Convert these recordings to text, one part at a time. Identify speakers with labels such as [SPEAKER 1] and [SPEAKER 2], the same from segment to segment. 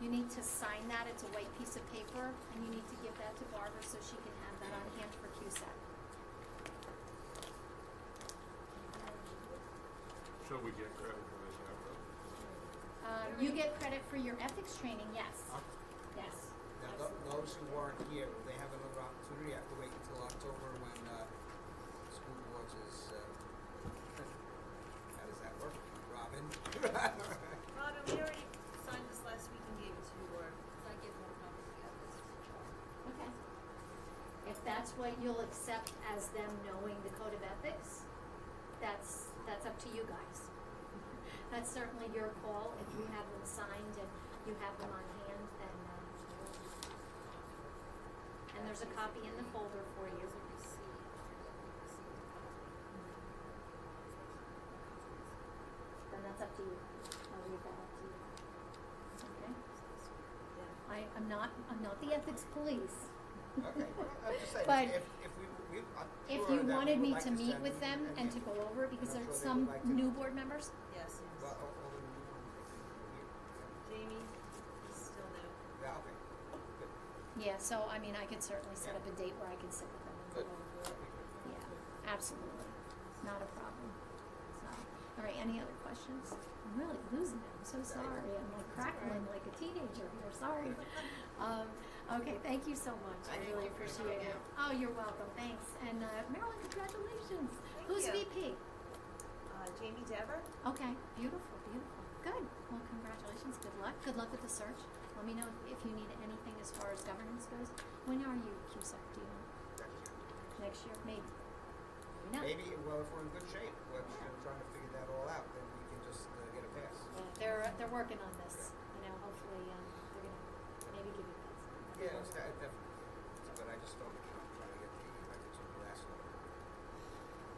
[SPEAKER 1] You need to sign that, it's a white piece of paper, and you need to give that to Barbara so she can have that on hand for E CUSAC.
[SPEAKER 2] Should we get credit for this effort?
[SPEAKER 1] Um, you get credit for your ethics training, yes,
[SPEAKER 3] Huh?
[SPEAKER 1] yes.
[SPEAKER 3] Now, th- those who aren't here, will they have another opportunity? Have to wait until October when uh, school boards is. Uh, how does that work, Robin?
[SPEAKER 4] Robin, we already signed this last week and gave it to you, or did I give more copies of this?
[SPEAKER 1] Okay. If that's what you'll accept as them knowing the code of ethics, that's, that's up to you guys. That's certainly your call. If you have them signed and you have them on hand, then, um, and there's a copy in the folder for you. Then that's up to you. I'll leave that up to you. Okay? I, I'm not, I'm not the ethics police.
[SPEAKER 3] okay, well, I'm just saying,
[SPEAKER 1] But
[SPEAKER 3] if, if we, we I'm
[SPEAKER 1] If
[SPEAKER 3] sure
[SPEAKER 1] you
[SPEAKER 3] that we
[SPEAKER 1] wanted
[SPEAKER 3] would
[SPEAKER 1] me
[SPEAKER 3] like
[SPEAKER 1] to meet
[SPEAKER 3] send
[SPEAKER 1] with them and to go over, it because
[SPEAKER 3] I'm
[SPEAKER 1] there's
[SPEAKER 3] sure
[SPEAKER 1] some
[SPEAKER 3] they would like to-
[SPEAKER 1] new board members,
[SPEAKER 4] Yes,
[SPEAKER 3] Well,
[SPEAKER 4] yes.
[SPEAKER 3] all- all the new ones, I think, are here.
[SPEAKER 4] Jamie is still new.
[SPEAKER 3] Yeah, okay. Good.
[SPEAKER 1] yeah, so, I mean, I could certainly set
[SPEAKER 3] Yeah.
[SPEAKER 1] up a date where I could sit with them and go
[SPEAKER 3] Good.
[SPEAKER 1] over.
[SPEAKER 3] That'd be good.
[SPEAKER 1] Yeah, absolutely, not a problem, so, all right, any other questions? I'm really losing it, I'm so sorry, I'm like crackling like a teenager here, sorry. Um, okay, thank you so much, I
[SPEAKER 3] Thank
[SPEAKER 1] really
[SPEAKER 3] you for
[SPEAKER 1] appreciate it.
[SPEAKER 3] coming
[SPEAKER 1] Oh, you're welcome, thanks, and uh, Marilyn, congratulations,
[SPEAKER 4] Thank
[SPEAKER 1] who's
[SPEAKER 4] you.
[SPEAKER 1] VP?
[SPEAKER 4] Uh, Jamie Dever?
[SPEAKER 1] Okay, beautiful, beautiful. Good. Well, congratulations. Good luck. Good luck with the search. Let me know if you need anything as far as governance goes. When are you CUSAC? Do you know?
[SPEAKER 3] Next
[SPEAKER 1] Next
[SPEAKER 3] year.
[SPEAKER 1] year? Maybe. Maybe not.
[SPEAKER 3] Maybe, well, if we're in good shape, we're we're trying to figure that all out, then we can just uh, get a pass.
[SPEAKER 1] Yeah, they're, they're working on this. You know, hopefully um, they're going to maybe give you guys.
[SPEAKER 3] Yeah, it's de- definitely, but I just don't, I'm trying to get the, I think it's the last one.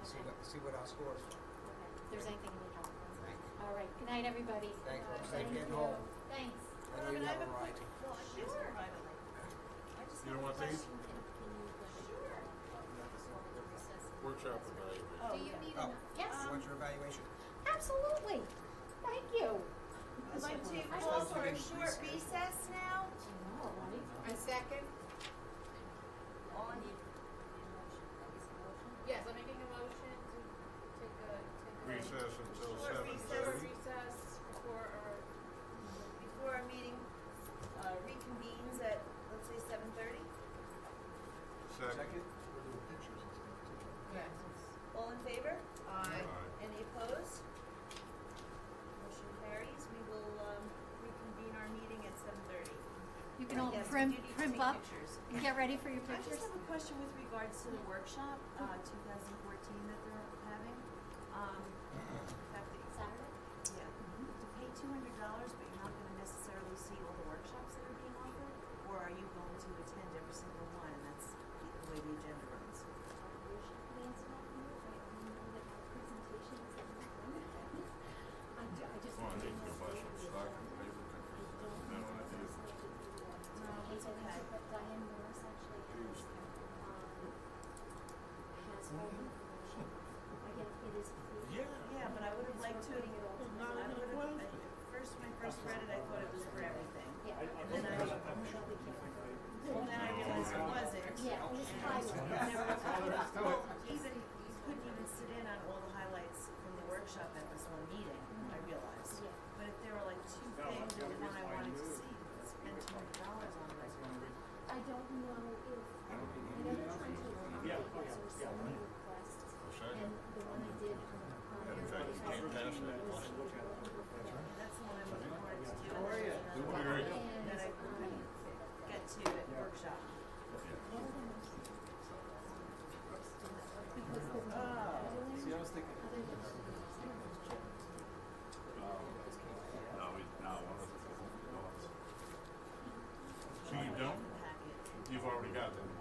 [SPEAKER 3] See
[SPEAKER 1] Okay.
[SPEAKER 3] what, see what our scores are.
[SPEAKER 1] Okay. If there's anything you need help with.
[SPEAKER 3] Thank you.
[SPEAKER 1] All right. Good night, everybody.
[SPEAKER 3] Thank you. Oh,
[SPEAKER 1] Thank
[SPEAKER 3] Safe getting
[SPEAKER 1] you.
[SPEAKER 3] home.
[SPEAKER 1] Thanks.
[SPEAKER 3] I know you have a ride.
[SPEAKER 4] Well, I think
[SPEAKER 1] Sure.
[SPEAKER 4] privately. I just
[SPEAKER 2] You
[SPEAKER 4] have a
[SPEAKER 2] don't want these?
[SPEAKER 4] question. Sure.
[SPEAKER 2] Workshop evaluation.
[SPEAKER 4] Oh,
[SPEAKER 1] Do you
[SPEAKER 4] yeah.
[SPEAKER 1] need
[SPEAKER 3] Oh.
[SPEAKER 1] an... Yes.
[SPEAKER 4] Um,
[SPEAKER 3] What's your evaluation?
[SPEAKER 1] Absolutely. Thank you.
[SPEAKER 4] I'd like to
[SPEAKER 1] I
[SPEAKER 4] call
[SPEAKER 3] just
[SPEAKER 4] for a
[SPEAKER 3] didn't
[SPEAKER 4] short
[SPEAKER 3] research.
[SPEAKER 4] recess now.
[SPEAKER 1] Tomorrow, right?
[SPEAKER 5] A second?
[SPEAKER 4] On.
[SPEAKER 5] Yes, I'm making a motion to take a, take a.
[SPEAKER 2] Recess until
[SPEAKER 4] Short
[SPEAKER 2] seven
[SPEAKER 4] recess.
[SPEAKER 5] Short
[SPEAKER 2] thirty.
[SPEAKER 5] recess before our,
[SPEAKER 4] Before our meeting, uh, reconvenes at, let's say, seven thirty.
[SPEAKER 2] Second.
[SPEAKER 5] yes.
[SPEAKER 4] All in favor?
[SPEAKER 5] Aye.
[SPEAKER 2] Aye.
[SPEAKER 4] Any opposed? Motion carries. We will um, reconvene our meeting at seven thirty.
[SPEAKER 1] You can all prim, primp up and get ready for your
[SPEAKER 6] I just
[SPEAKER 1] pictures.
[SPEAKER 6] have a question with regards to the workshop, uh,
[SPEAKER 4] Uh-huh.
[SPEAKER 6] two thousand fourteen that they're having. Um, the fact that,
[SPEAKER 1] Saturday?
[SPEAKER 6] yeah,
[SPEAKER 4] Mm-hmm.
[SPEAKER 6] you have to pay two hundred dollars, but you're not gonna necessarily see all the workshops that are being offered? Or are you going to attend every single one, and that's the way the agenda runs?
[SPEAKER 2] Well, I need to go buy some stock and paper. I don't have to.
[SPEAKER 6] it's okay.
[SPEAKER 1] But Diane Morris actually has, um, has all the information. Again, it is. free.
[SPEAKER 2] Yeah.
[SPEAKER 6] Yeah, but I would have liked to,
[SPEAKER 1] Putting it all together.
[SPEAKER 6] I would have, I- at first, when I first read it, I thought it was for everything.
[SPEAKER 1] Yeah.
[SPEAKER 6] And then I,
[SPEAKER 1] But we can't.
[SPEAKER 6] well, then I realized it wasn't.
[SPEAKER 1] Yeah, it was private.
[SPEAKER 6] Well, even, you couldn't even sit in on all the highlights from the workshop at this one meeting, I realized.
[SPEAKER 1] Yeah.
[SPEAKER 6] But if there were like two things, or one I wanted to see, spend two hundred dollars on it.
[SPEAKER 1] I don't know if, I know they're trying to accommodate or some requests. And the one I did on the. on
[SPEAKER 2] Yeah, in
[SPEAKER 1] the-
[SPEAKER 2] fact, you can't pass that one.
[SPEAKER 6] That's the one I was wanted to do. How are you?
[SPEAKER 2] All right.
[SPEAKER 1] And
[SPEAKER 6] That I couldn't get to at workshop.
[SPEAKER 2] No, we, no, one of the- no. So you don't,
[SPEAKER 6] Packet.
[SPEAKER 2] you've already got them.